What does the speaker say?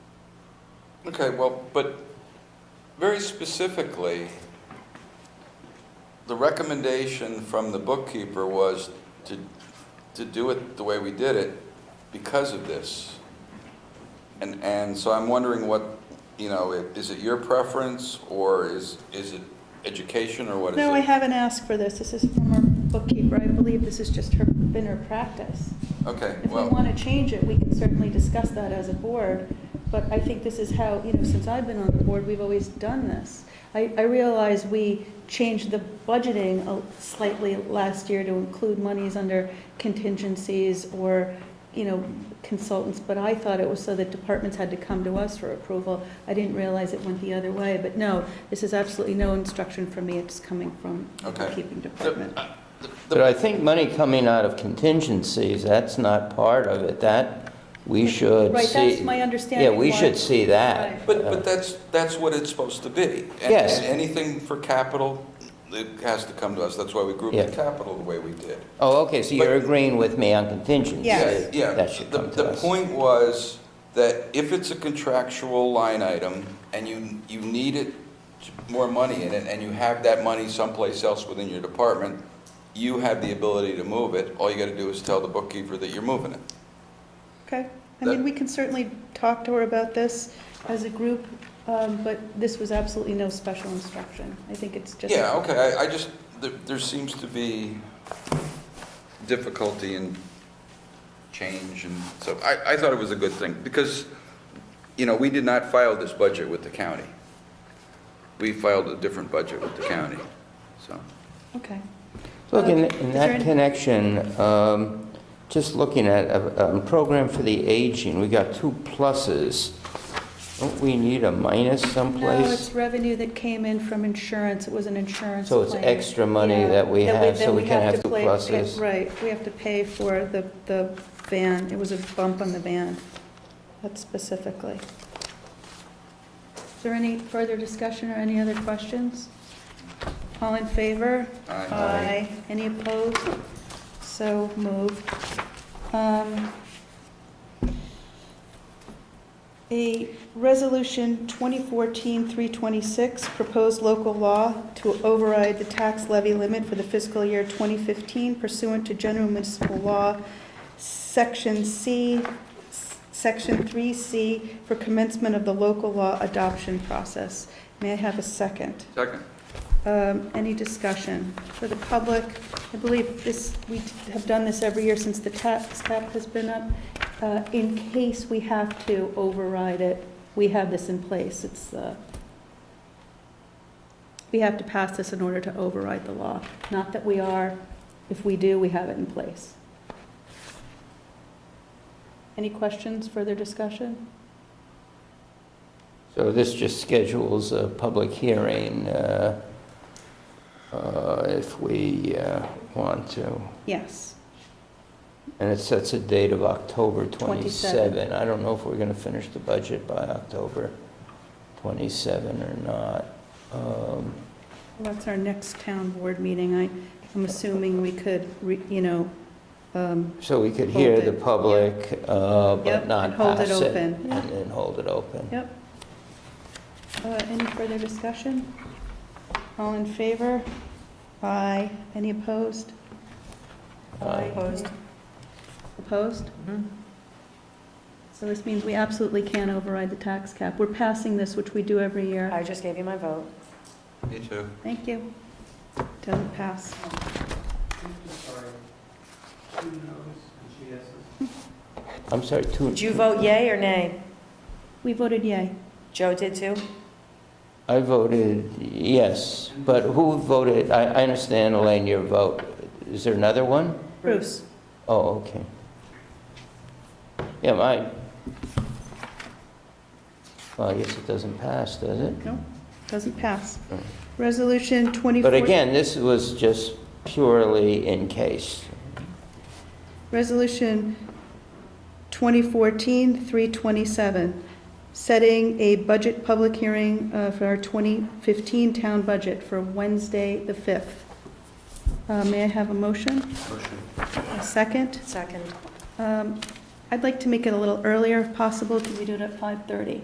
Okay, well, but very specifically, the recommendation from the bookkeeper was to, to do it the way we did it because of this. And, and so I'm wondering what, you know, i- is it your preference or is, is it education or what is it? No, I haven't asked for this. This is from our bookkeeper. I believe this has just her, been her practice. Okay, If we well. want to change it, we can certainly discuss that as a board, but I think this is how, you know, since I've been on the board, we've always done this. I, I realize we changed the budgeting a- slightly last year to include monies under contingencies or, you know, consultants, but I thought it was so that departments had to come to us for approval. I didn't realize it went the other way, but no, this is absolutely no instruction from me, it's coming from the Okay. uh, bookkeeping department. the- the- But I think money coming out of contingencies, that's not part of it. That, we should see. Right, that's my understanding Yeah, we why- should see that. Right. But, but that's, that's what it's supposed to be. And- Yes. And anything for capital, it has to come to us. That's why we grouped Yeah. the capital the way we did. Oh, okay, so you're But- agreeing with me on contingencies? Yes. Yeah, That should the- come to us. The point was that if it's a contractual line item and you, you need it, more money in it, and you have that money someplace else within your department, you have the ability to move it. All you gotta do is tell the bookkeeper that you're moving it. Okay, I mean, we can certainly talk to her about this as a group, um, but this was absolutely no special instruction. I think it's just. Yeah, okay, I, I just, there, there seems to be difficulty in change, and so I, I thought it was a good thing, because, you know, we did not file this budget with the county. We filed a different budget with the county, so. Okay, Look, in Okay, in is there that any- connection, um, just looking at a a program for the aging, we got two pluses. Don't we need a minus someplace? no, it's revenue that came in from insurance, it was an insurance So it's claim. extra money Yeah, that we have, then so we can have two play- pluses. Right, we have to pay for the, the van, it was a bump on the van, that specifically. Is there any further discussion or any other questions? All in favor? Aye. Aye. Any opposed? So moved. Um, A resolution 2014-326, proposed local law to override the tax levy limit for the fiscal year 2015 pursuant to general municipal law, section C, S- section 3C, for commencement of the local law adoption process. May I have a second? Second. Um, Any discussion for the public? I believe this, we have done this every year since the tax cap has been up. Uh, In case we have to override it, we have this in place. It's, uh, we have to pass this in order to override the law. Not that we are, if we do, we have it in place. Any questions, further discussion? So this just schedules a public hearing uh, uh, if we uh, want to. Yes. And it sets a date of October 27. 27. I don't know if we're going to finish the budget by October 27 or not. Um, Well, That's our next town board meeting. I, I'm assuming we could, re- you know, um, So we could hear Hold the it. public, uh, Yep, but not and hold it pass it. open. And then hold it open. yep. Uh, Any further discussion? All in favor? Aye. Any opposed? Aye. Opposed. Opposed? So this means we absolutely can't override the tax cap. We're passing this, which we do every year. I just gave you my vote. Me too. Thank you. Doesn't pass. I'm sorry, two... Did you vote yay or nay? We voted yay. Joe did too? I voted yes, but who voted, I I understand, Elaine, your vote. Is there another one? Bruce? Oh, okay. Yeah, my, well, I guess it doesn't pass, does it? No, doesn't pass. No. Resolution 24... But again, this was just purely in case. Resolution 2014-327, setting a budget public hearing uh, for our 2015 town budget for Wednesday, the 5th. Uh, May I have a motion? Motion. A second? Second. Um, I'd like to make it a little earlier if possible. Could we do it at 5:30?